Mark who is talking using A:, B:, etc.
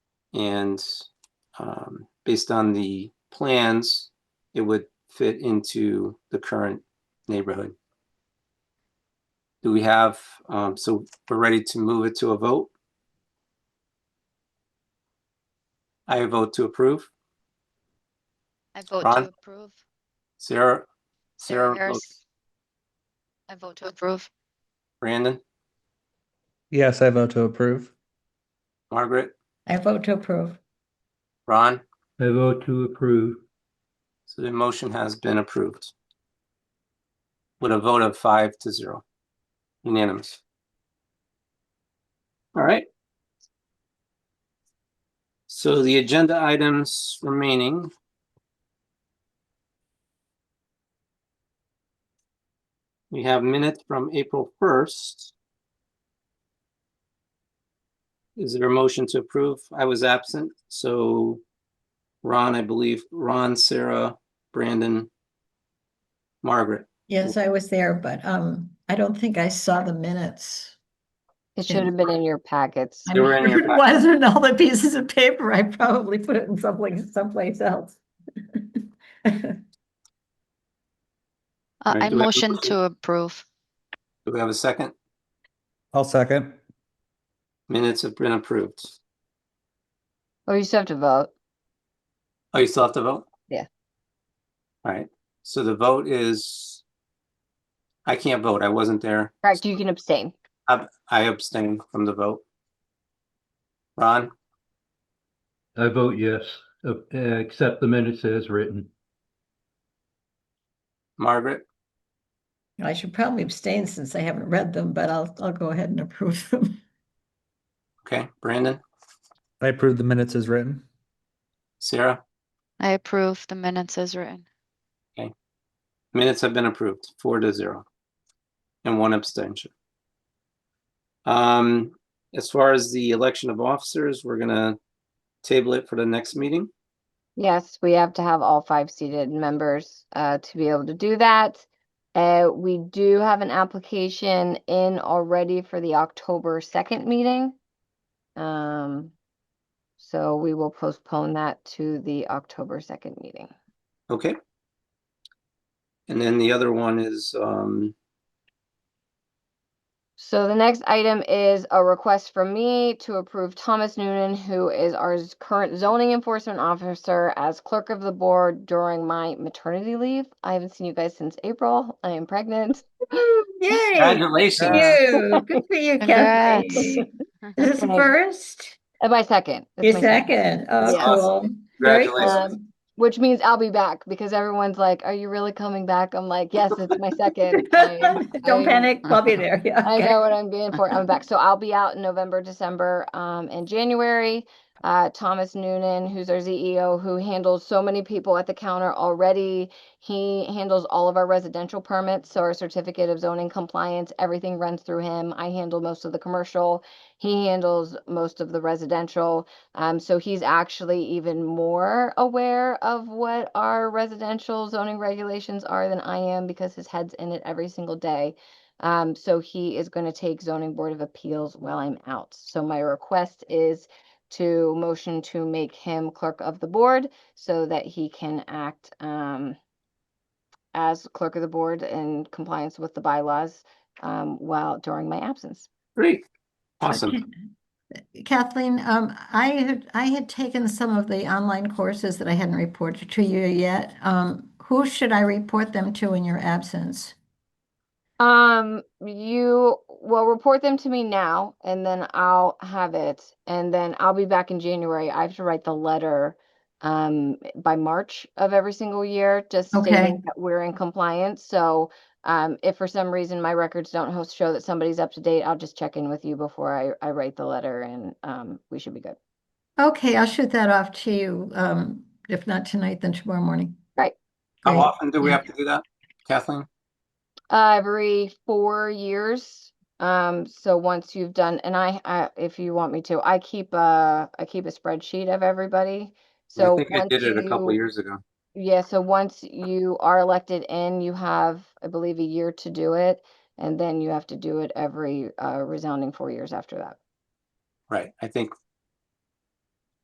A: And um, based on the plans, it would fit into the current neighborhood. Do we have, um, so we're ready to move it to a vote? I vote to approve.
B: I vote
A: Ron?
B: to approve.
A: Sarah?
B: Sarah
A: votes-
B: Harris. I vote to approve.
A: Brandon?
C: Yes, I vote to approve.
A: Margaret?
D: I vote to approve.
A: Ron?
E: I vote to approve.
A: So the motion has been approved. With a vote of five to zero. Unanimous. All right. So the agenda items remaining. We have minutes from April first. Is there a motion to approve? I was absent, so Ron, I believe, Ron, Sarah, Brandon, Margaret.
D: Yes, I was there, but um, I don't think I saw the minutes.
F: It
D: Yeah.
F: should have been in your packets.
D: I
A: They were in
D: mean,
A: your
D: It
A: packet.
D: wasn't all the pieces of paper. I probably put it in someplace, someplace else.
B: Uh,
A: Alright,
B: I
A: do we have a
B: motion
A: motion?
B: to approve.
A: Do we have a second?
C: I'll second.
A: Minutes have been approved.
F: Oh, you still have to vote.
A: Oh, you still have to vote?
F: Yeah.
A: All right, so the vote is, I can't vote. I wasn't there.
F: Correct, you can abstain.
A: I abstain from the vote. Ron,
E: I vote yes, uh, uh, accept the minutes as written.
A: Margaret,
D: I should probably abstain since I haven't read them, but I'll, I'll go ahead and approve them.
A: okay, Brandon,
C: I approve the minutes as written.
A: Sarah,
B: I approve the minutes as written.
A: minutes have been approved, four to zero. And one abstention. Um, as far as the election of officers, we're gonna table it for the next meeting.
F: Yes, we have to have all five seated members uh, to be able to do that. Uh, we do have an application in already for the October 2nd meeting. Um, so we will postpone that to the October 2nd meeting.
A: Okay. And then the other one is, um,
F: So the next item is a request from me to approve Thomas Noonan, who is our z- current zoning enforcement officer as clerk of the board during my maternity leave. I haven't seen you guys since April. I am pregnant.
D: Yay!
A: congratulations.
D: You, good for you,
B: Congrats.
D: Kathy. This
F: Okay.
D: first,
F: Uh, My second. It's
D: your
F: my second. Um,
D: second, oh, cool. Very cool.
A: Congratulations.
F: Which means I'll be back because everyone's like, are you really coming back? I'm like, yes, it's my second. I'm-
D: Don't
F: I'm-
D: panic, I'll be there, yeah.
F: I
D: okay.
F: know what I'm being for. I'm back. So I'll be out in November, December, um, and January. Uh, Thomas Noonan, who's our CEO, who handles so many people at the counter already. He handles all of our residential permits, so our certificate of zoning compliance, everything runs through him. I handle most of the commercial. He handles most of the residential. Um, so he's actually even more aware of what our residential zoning regulations are than I am because his head's in it every single day. Um, so he is going to take zoning board of appeals while I'm out. So my request is to motion to make him clerk of the board so that he can act, um, as clerk of the board in compliance with the bylaws, um, while during my absence.
A: Great. Awesome.
D: Okay. Kathleen, um, I had, I had taken some of the online courses that I hadn't reported to you yet. Um, who should I report them to in your absence?
F: Um, you will report them to me now and then I'll have it and then I'll be back in January. I have to write the letter um by March of every single year, just
D: Okay.
F: stating that we're in compliance. So um if for some reason my records don't ho- show that somebody's up to date, I'll just check in with you before I I write the letter and um we should be good.
D: Okay, I'll shoot that off to you, um, if not tonight, then tomorrow morning.
F: Right.
A: How
D: Great.
A: often do we have to do that, Kathleen?
F: Uh, every four years. Um, so once you've done, and I, I, if you want me to, I keep a, I keep a spreadsheet of everybody.
A: I
F: So
A: think I
F: once
A: did it a couple
F: you-
A: years ago.
F: Yeah, so once you are elected in, you have, I believe, a year to do it, and then you have to do it every uh, resounding four years after that.
A: Right. I think